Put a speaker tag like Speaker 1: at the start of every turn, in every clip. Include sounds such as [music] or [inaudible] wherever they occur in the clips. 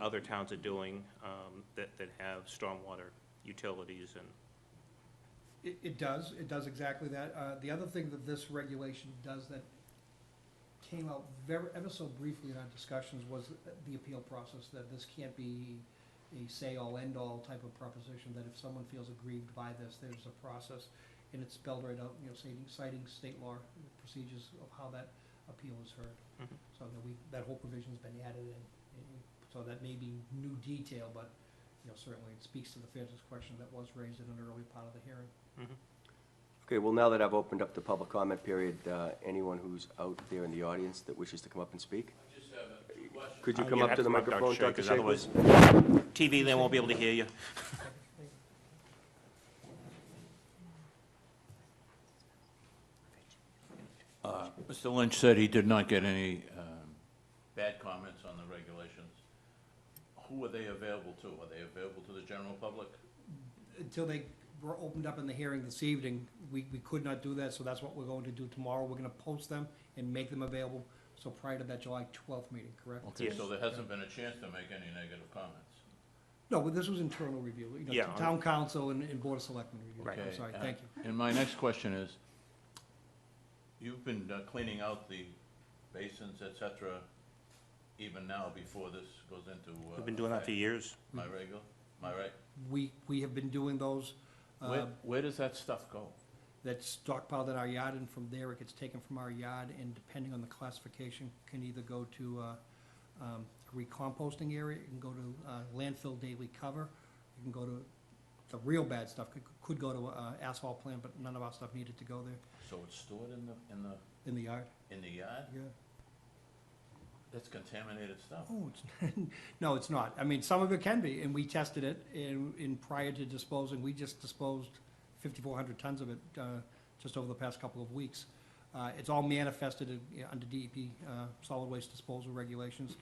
Speaker 1: other towns are doing um, that, that have stormwater utilities and,
Speaker 2: It, it does, it does exactly that. Uh, the other thing that this regulation does that came out very, ever so briefly in our discussions was the appeal process, that this can't be a say-all, end-all type of proposition, that if someone feels aggrieved by this, there's a process, and it's spelled right out, you know, citing, citing state law procedures of how that appeal is heard.
Speaker 1: Mhm.
Speaker 2: So that we, that whole provision's been added in, and so that may be new detail, but, you know, certainly it speaks to the fairness question that was raised in an early part of the hearing.
Speaker 3: Okay, well, now that I've opened up the public comment period, uh, anyone who's out there in the audience that wishes to come up and speak? Could you
Speaker 1: Uh,
Speaker 3: come
Speaker 1: you'd
Speaker 3: up
Speaker 1: have
Speaker 3: to the
Speaker 1: to come up, Dr.
Speaker 3: microphone,
Speaker 1: Shea,
Speaker 3: Dr.
Speaker 1: 'cause
Speaker 3: Shea?
Speaker 1: otherwise-
Speaker 3: please?
Speaker 1: TV, they won't be able to hear you.
Speaker 4: Mr. Lynch said he did not get any um, bad comments on the regulations. Who are they available to? Are they available to the general public?
Speaker 2: until they were opened up in the hearing this evening, we, we could not do that, so that's what we're going to do tomorrow. We're gonna post them and make them available, so prior to that July twelfth meeting, correct?
Speaker 1: Yes.
Speaker 4: So there hasn't been a chance to make any negative comments.
Speaker 2: No, but this was internal review, you know,
Speaker 1: Yeah.
Speaker 2: town council and, and board of selectmen review. I'm
Speaker 4: Okay,
Speaker 2: sorry,
Speaker 4: uh,
Speaker 2: thank you.
Speaker 4: And my next question is, you've been uh, cleaning out the basins, et cetera, even now before this goes into. uh,
Speaker 1: We've been doing that for
Speaker 4: effect.
Speaker 1: years.
Speaker 4: Am I regular? Am I right?
Speaker 2: We, we have been doing those, uh,
Speaker 4: Where, where does that stuff go?
Speaker 2: that's stockpiled in our yard, and from there it gets taken from our yard, and depending on the classification, can either go to, uh, um, a recomposting area, it can go to, uh, landfill daily cover, it can go to, the real bad stuff could, could go to, uh, asphalt plant, but none of our stuff needed to go there
Speaker 4: So it's stored in the, in the,
Speaker 2: in the yard.
Speaker 4: in the yard?
Speaker 2: Yeah.
Speaker 4: That's contaminated stuff.
Speaker 2: Oh, it's, [laughs] no, it's not. I mean, some of it can be, and we tested it, and, and prior to disposing, we just disposed fifty-four hundred tons of it, uh, just over the past couple of weeks. Uh, it's all manifested in- yeah, under DEP, uh, solid waste disposal regulations,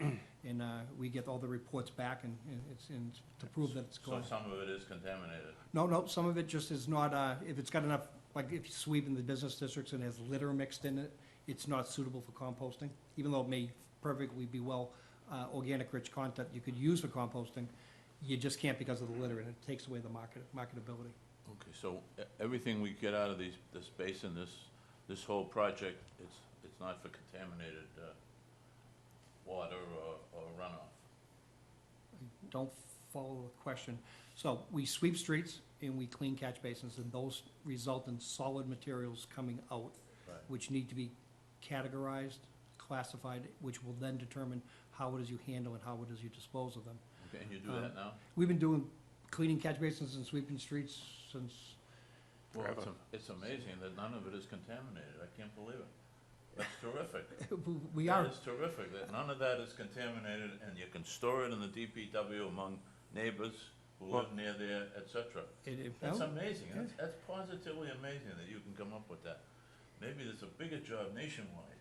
Speaker 2: and, uh, we get all the reports back and, and it's, and to prove that it's
Speaker 4: So
Speaker 2: gone.
Speaker 4: some of it is contaminated.
Speaker 2: No, no, some of it just is not, uh, if it's got enough, like if you sweep in the business districts and has litter mixed in it, it's not suitable for composting, even though it may perfectly be well, uh, organic rich content you could use for composting. You just can't because of the litter and it takes away the market, marketability.
Speaker 4: Okay, so e- everything we get out of these, this basin, this, this whole project, it's, it's not for contaminated, uh, water or, or runoff?
Speaker 2: Don't follow the question. So we sweep streets and we clean catch basins and those result in solid materials coming out
Speaker 4: Right.
Speaker 2: which need to be categorized, classified, which will then determine how it is you handle and how it is you dispose of them.
Speaker 4: Okay, and you do
Speaker 2: Um,
Speaker 4: that now?
Speaker 2: We've been doing cleaning catch basins and sweeping streets since, [laughs]
Speaker 4: Well, it's,
Speaker 1: Forever.
Speaker 4: a- it's amazing that none of it is contaminated, I can't believe it. That's terrific.
Speaker 2: we are,
Speaker 4: That is terrific, that none of that is contaminated, and you can store it in the DPW among neighbors who live near there, et cetera.
Speaker 2: it, it,
Speaker 4: That's
Speaker 2: no,
Speaker 4: amazing, that's, that's positively amazing that you can come up with that. Maybe there's a bigger job nationwide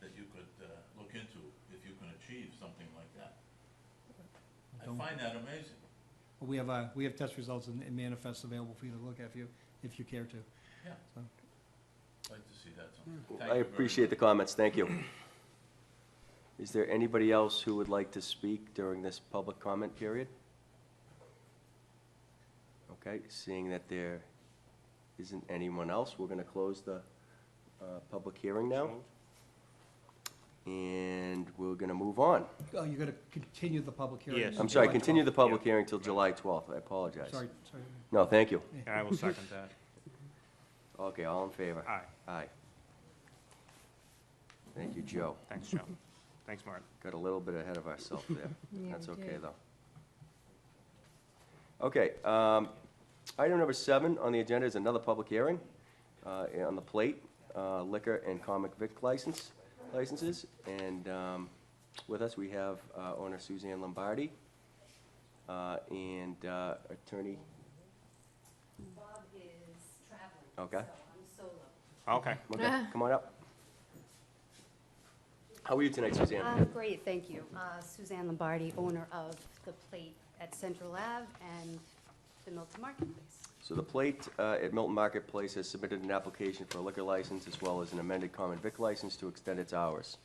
Speaker 4: that you could, uh, look into if you can achieve something like that. I
Speaker 2: Don't-
Speaker 4: find that amazing,
Speaker 2: we have, uh, we have test results and and manifests available for you to look at if you, if you care to.
Speaker 4: yeah.
Speaker 2: So-
Speaker 4: Like to see that sometime. Thank you
Speaker 3: Hmm. I
Speaker 4: very
Speaker 3: appreciate the
Speaker 4: much.
Speaker 3: comments, thank you. Is there anybody else who would like to speak during this public comment period? Okay, seeing that there isn't anyone else, we're gonna close the uh, public hearing now, and we're gonna move on.
Speaker 2: Oh, you're gonna continue the public hearing?
Speaker 1: Yes.
Speaker 3: I'm sorry,
Speaker 2: July
Speaker 3: continue the
Speaker 2: 12th.
Speaker 3: public hearing till July 12th, I apologize.
Speaker 2: Sorry, sorry.
Speaker 3: No, thank you.
Speaker 1: And I will second that.
Speaker 3: Okay, all in favor?
Speaker 1: Aye,
Speaker 3: Aye. Thank you, Joe.
Speaker 1: thanks, Joe. Thanks, Mark.
Speaker 3: Got a little bit ahead of
Speaker 5: [laughs]
Speaker 3: ourselves there.
Speaker 5: Yeah,
Speaker 3: That's
Speaker 5: we
Speaker 3: okay,
Speaker 5: did.
Speaker 3: though. Okay, um, item number seven on the agenda is another public hearing uh, on the plate, uh, liquor and comic vic license, licenses. And um, with us, we have uh, owner Suzanne Lombardi uh, and uh, attorney,
Speaker 6: Bob is traveling.
Speaker 3: Okay.
Speaker 6: So I'm solo.
Speaker 1: Okay.
Speaker 3: okay, come on up. How are you tonight, Suzanne?
Speaker 6: Uh, Great, thank you. Uh, Suzanne Lombardi, owner of The Plate at Central Ave and the Milton Marketplace.
Speaker 3: So the plate uh, at Milton Marketplace has submitted an application for a liquor license as well as an amended common vic license to extend its hours.